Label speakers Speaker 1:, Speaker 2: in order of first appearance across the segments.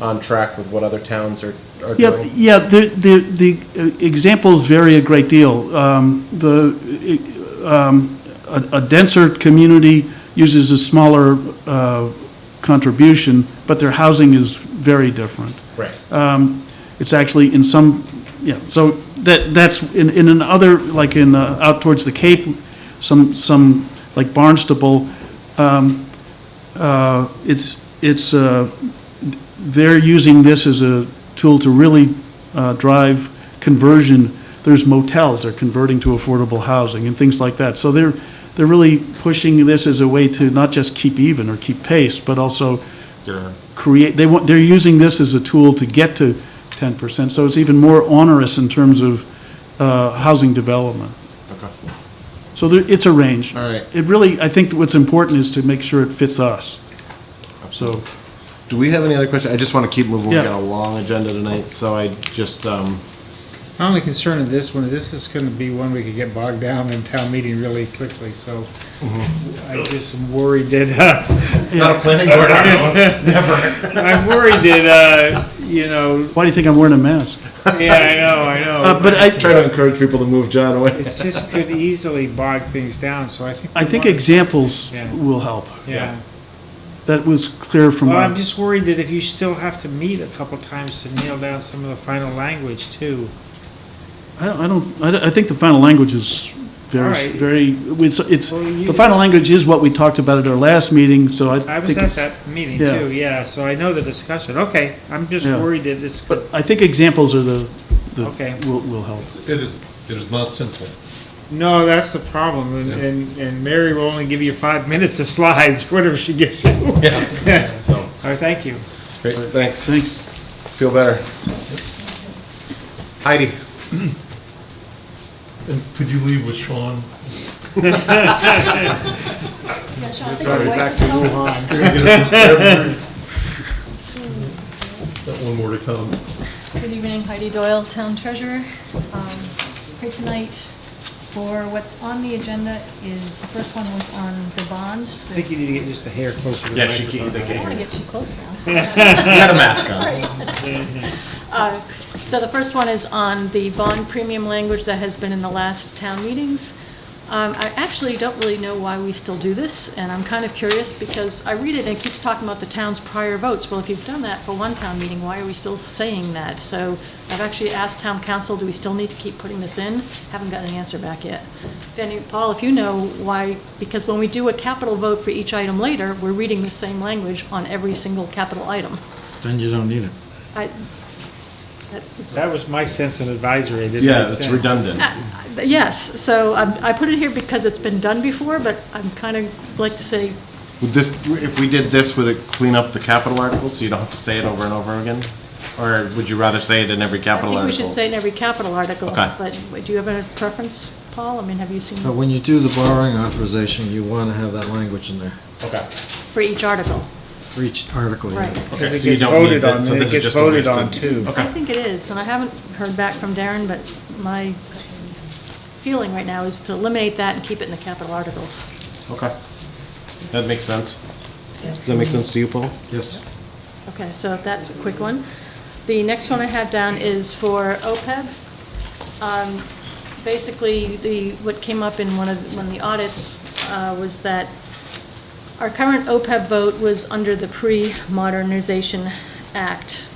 Speaker 1: on track with what other towns are, are
Speaker 2: Yeah,
Speaker 1: doing?
Speaker 2: yeah, the, the, the examples vary a great deal. Um, The, um, a a denser community uses a smaller uh, contribution, but their housing is very different.
Speaker 1: Right.
Speaker 2: Uh, It's actually in some, yeah, so that, that's, in, in another, like in, uh, out towards the Cape, some, some, like Barnstable, um, uh, it's, it's, uh, they're using this as a tool to really uh, drive conversion. There's motels they're converting to affordable housing and things like that. So they're, they're really pushing this as a way to not just keep even or keep pace, but also create, they want, they're using this as a tool to get to 10%. So it's even more onerous in terms of uh, housing development. So there, it's a range.
Speaker 1: All right.
Speaker 2: It really, I think what's important is to make sure it fits us. So,
Speaker 1: Do we have any other questions? I just want to keep moving. We
Speaker 2: Yeah.
Speaker 1: got a long agenda tonight, so I just, um,
Speaker 3: My only concern in this one, this is gonna be one we could get bogged down in town meeting really quickly, so I just am worried that, uh,
Speaker 1: not a planning board.
Speaker 3: I'm worried that, uh, you know,
Speaker 2: why do you think I'm wearing a mask?
Speaker 3: yeah, I know, I
Speaker 2: Uh,
Speaker 3: know.
Speaker 2: But I,
Speaker 1: Try to encourage people to move John away.
Speaker 3: It's just could easily bog things down, so I think.
Speaker 2: I think
Speaker 3: we want-
Speaker 2: examples
Speaker 3: Yeah.
Speaker 2: will help.
Speaker 3: Yeah.
Speaker 2: That was clear from,
Speaker 3: Well, I'm
Speaker 2: our-
Speaker 3: just worried that if you still have to meet a couple times to nail down some of the final language too.
Speaker 2: I don't- I don't, I don't- I think the final language is
Speaker 3: All
Speaker 2: very,
Speaker 3: right.
Speaker 2: very, it's, it's-
Speaker 3: Well, you-
Speaker 2: the final language is what we talked about at our last meeting, so I
Speaker 3: I
Speaker 2: think
Speaker 3: was at
Speaker 2: it's.
Speaker 3: that meeting
Speaker 2: yeah.
Speaker 3: too, yeah, so I know the discussion. Okay, I'm just
Speaker 2: Yeah.
Speaker 3: worried that this could
Speaker 2: But I think examples are the, the-
Speaker 3: Okay.
Speaker 2: will, will help.
Speaker 4: It is, it is not simple.
Speaker 3: No, that's the problem, and, and, and Mary will only give you five minutes of slides, whatever she gives you. All
Speaker 4: Yeah. So,
Speaker 3: right, thank you.
Speaker 1: Great, thanks.
Speaker 2: Thanks.
Speaker 1: Feel better. Heidi,
Speaker 4: and could you leave with Sean?
Speaker 5: Yeah, Sean, I think
Speaker 1: sorry,
Speaker 5: the white-
Speaker 1: back to Wuhan.
Speaker 4: Got one more to come.
Speaker 5: Good evening, Heidi Doyle, Town Treasurer. Um, Here tonight for what's on the agenda is, the first one was on the bonds.
Speaker 3: I think you need to get just a hair closer to the
Speaker 1: Yeah, she
Speaker 3: microphone.
Speaker 1: can't, they
Speaker 5: I don't
Speaker 1: can't.
Speaker 5: want to get too close now.
Speaker 1: You got a mask on.
Speaker 5: Uh, So the first one is on the bond premium language that has been in the last town meetings. Um, I actually don't really know why we still do this, and I'm kind of curious because I read it and it keeps talking about the town's prior votes. Well, if you've done that for one town meeting, why are we still saying that? So I've actually asked town council, do we still need to keep putting this in? Haven't gotten an answer back yet. If any- Paul, if you know why, because when we do a capital vote for each item later, we're reading the same language on every single capital item.
Speaker 6: Then you don't need it.
Speaker 5: I, that's-
Speaker 3: That was my sense of advisory, it didn't
Speaker 1: Yeah,
Speaker 3: make
Speaker 1: it's
Speaker 3: sense.
Speaker 1: redundant.
Speaker 5: Yes, so um, I put it here because it's been done before, but I'm kind of like to say,
Speaker 1: Would this, if we did this, would it clean up the capital articles, so you don't have to say it over and over again? Or would you rather say it in every
Speaker 5: I
Speaker 1: capital
Speaker 5: think
Speaker 1: article?
Speaker 5: we should say in every capital article.
Speaker 1: Okay.
Speaker 5: But do you have a preference, Paul? I mean, have you seen
Speaker 6: But when you do the borrowing authorization, you want to have that language in there
Speaker 1: Okay.
Speaker 5: for each article?
Speaker 6: for each article. yeah.
Speaker 5: Right.
Speaker 3: Because
Speaker 1: Okay,
Speaker 3: it
Speaker 1: so you
Speaker 3: gets
Speaker 1: don't need
Speaker 3: voted
Speaker 1: that,
Speaker 3: on,
Speaker 1: so
Speaker 3: and
Speaker 1: this
Speaker 3: it
Speaker 1: is
Speaker 3: gets
Speaker 1: just a
Speaker 3: voted
Speaker 1: waste
Speaker 3: on
Speaker 1: of-
Speaker 3: too.
Speaker 5: I think it is, and I haven't heard back from Darren, but my feeling right now is to eliminate that and keep it in the capital articles.
Speaker 1: Okay. That makes sense. Does that make sense to you, Paul?
Speaker 6: Yes.
Speaker 5: Okay, so that's a quick one. The next one I have down is for OPEB. Um, Basically, the, what came up in one of, one of the audits uh, was that our current OPEB vote was under the Pre-Modernization Act,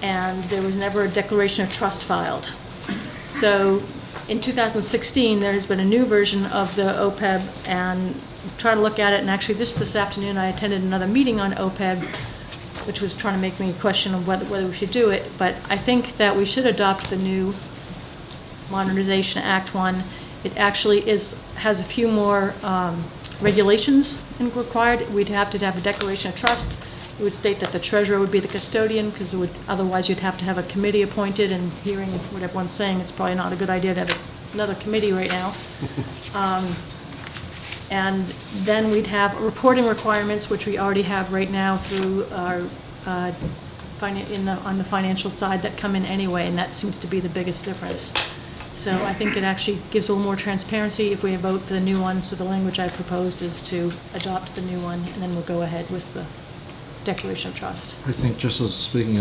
Speaker 5: and there was never a declaration of trust filed. So in 2016, there has been a new version of the OPEB, and try to look at it, and actually just this afternoon, I attended another meeting on E OPEB, which was trying to make me question of whether, whether we should do it, but I think that we should adopt the new Modernization Act one. It actually is, has a few more um, regulations in- required. We'd have to have a declaration of trust. It would state that the treasurer would be the custodian, because it would, otherwise you'd have to have a committee appointed, and hearing what everyone's saying, it's probably not a good idea to have another committee right now. Um, And then we'd have reporting requirements, which we already have right now through our, uh, finan- in the, on the financial side that come in anyway, and that seems to be the biggest difference. So I think it actually gives a little more transparency if we vote for the new one, so the language I proposed is to adopt the new one, and then we'll go ahead with the declaration of trust.
Speaker 6: I think just as, speaking